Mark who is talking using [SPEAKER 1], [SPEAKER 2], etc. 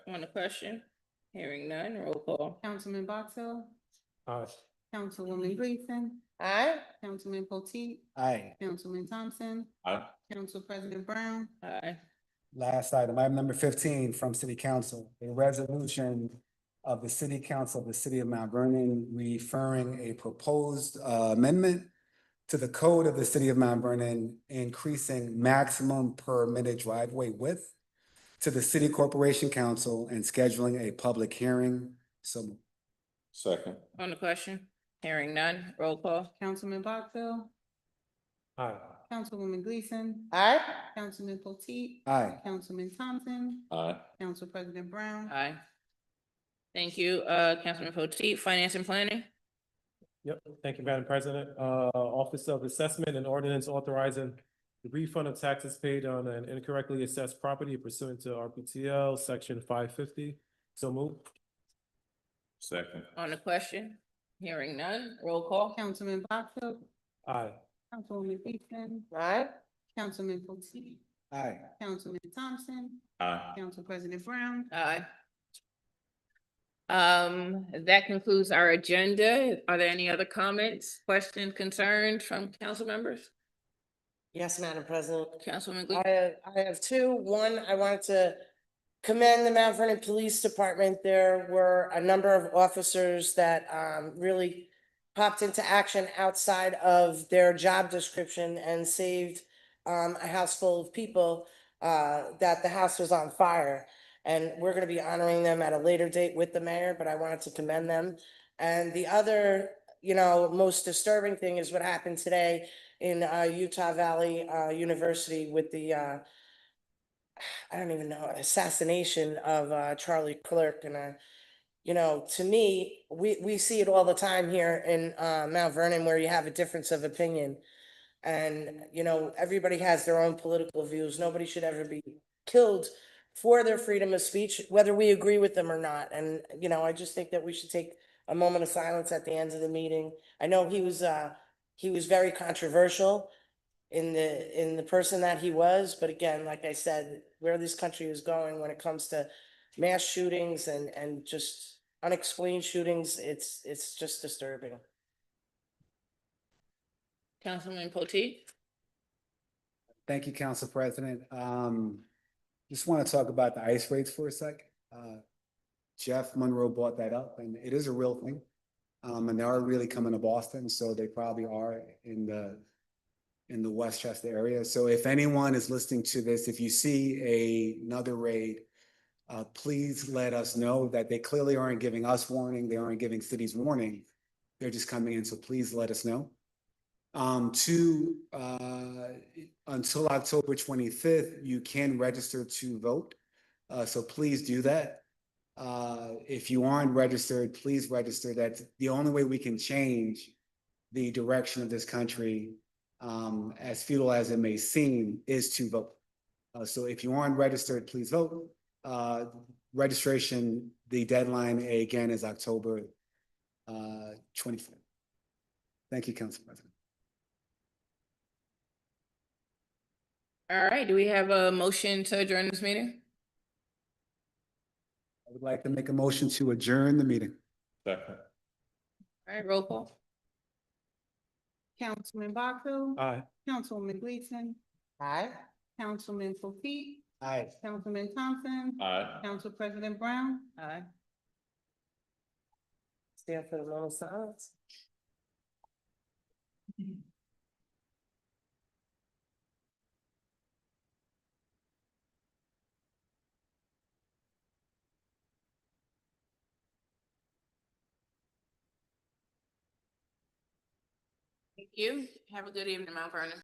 [SPEAKER 1] on the question? Hearing none, roll call.
[SPEAKER 2] Councilman Box Hill,
[SPEAKER 3] Aye.
[SPEAKER 2] Councilwoman
[SPEAKER 4] Mm-hmm.
[SPEAKER 2] Gleason,
[SPEAKER 4] Aye.
[SPEAKER 2] Councilman Potteet,
[SPEAKER 3] Aye.
[SPEAKER 2] Councilman Thompson,
[SPEAKER 5] Aye.
[SPEAKER 2] Council President Brown,
[SPEAKER 1] Aye.
[SPEAKER 3] Last item, item number fifteen from City Council, a resolution of the City Council of the City of Mount Vernon referring a proposed uh, amendment to the code of the City of Mount Vernon, increasing maximum permitted driveway width to the City Corporation Council and scheduling a public hearing. So
[SPEAKER 5] Second.
[SPEAKER 1] On the question? Hearing none, roll call.
[SPEAKER 2] Councilman Box Hill,
[SPEAKER 3] Aye.
[SPEAKER 2] Councilwoman Gleason,
[SPEAKER 4] Aye.
[SPEAKER 2] Councilman Potteet,
[SPEAKER 3] Aye.
[SPEAKER 2] Councilman Thompson,
[SPEAKER 5] Aye.
[SPEAKER 2] Council President Brown,
[SPEAKER 1] Aye. Thank you, uh, Councilman Potteet, Finance and Planning?
[SPEAKER 6] Yep, thank you, Madam President. Uh, Office of Assessment and Ordinance authorizing the refund of taxes paid on an incorrectly assessed property pursuant to RPTL, section five fifty. So move.
[SPEAKER 5] Second.
[SPEAKER 1] On the question? Hearing none, roll call.
[SPEAKER 2] Councilman Box Hill,
[SPEAKER 6] Aye.
[SPEAKER 2] Councilwoman Gleason,
[SPEAKER 4] Aye.
[SPEAKER 2] Councilman Potteet,
[SPEAKER 3] Aye.
[SPEAKER 2] Councilman Thompson,
[SPEAKER 5] Aye.
[SPEAKER 2] Council President Brown,
[SPEAKER 1] Aye. Um, that concludes our agenda. Are there any other comments, questions, concerns from council members?
[SPEAKER 4] Yes, Madam President.
[SPEAKER 1] Councilman
[SPEAKER 4] I
[SPEAKER 1] Gleason?
[SPEAKER 4] have, I have two. One, I wanted to commend the Mount Vernon Police Department. There were a number of officers that um really popped into action outside of their job description and saved um a house full of people uh that the house was on fire. And we're gonna be honoring them at a later date with the mayor, but I wanted to commend them. And the other, you know, most disturbing thing is what happened today in uh Utah Valley uh University with the uh I don't even know, assassination of uh Charlie Clerk and uh you know, to me, we we see it all the time here in uh Mount Vernon where you have a difference of opinion. And you know, everybody has their own political views. Nobody should ever be killed for their freedom of speech, whether we agree with them or not. And you know, I just think that we should take a moment of silence at the end of the meeting. I know he was uh he was very controversial in the, in the person that he was, but again, like I said, where this country is going when it comes to mass shootings and, and just unexplained shootings, it's, it's just disturbing.
[SPEAKER 1] Councilman Potteet?
[SPEAKER 3] Thank you, Council President. Um, just want to talk about the ice rates for a sec. Uh, Jeff Monroe brought that up and it is a real thing. Um, and they are really coming to Boston, so they probably are in the, in the Westchester area. So if anyone is listening to this, if you see a, another raid, uh, please let us know that they clearly aren't giving us warning, they aren't giving cities warning. They're just coming in, so please let us know. Um, two, uh, until October twenty-fifth, you can register to vote. Uh, so please do that. Uh, if you aren't registered, please register. That's the only way we can change the direction of this country, um, as futile as it may seem, is to vote. Uh, so if you aren't registered, please vote. Uh, registration, the deadline again is October, uh, twenty-fifth. Thank you, Council President.
[SPEAKER 1] All right, do we have a motion to adjourn this meeting?
[SPEAKER 3] I would like to make a motion to adjourn the meeting.
[SPEAKER 5] Second.
[SPEAKER 1] All right, roll call.
[SPEAKER 2] Councilman Box Hill,
[SPEAKER 6] Aye.
[SPEAKER 2] Councilwoman Gleason,
[SPEAKER 4] Aye?
[SPEAKER 2] Councilman Potteet,
[SPEAKER 3] Aye.
[SPEAKER 2] Councilman Thompson,
[SPEAKER 5] Aye.
[SPEAKER 2] Council President Brown,
[SPEAKER 1] Aye.
[SPEAKER 4] Stand for the moment of silence.
[SPEAKER 1] Thank you. Have a good evening, Mount Vernon.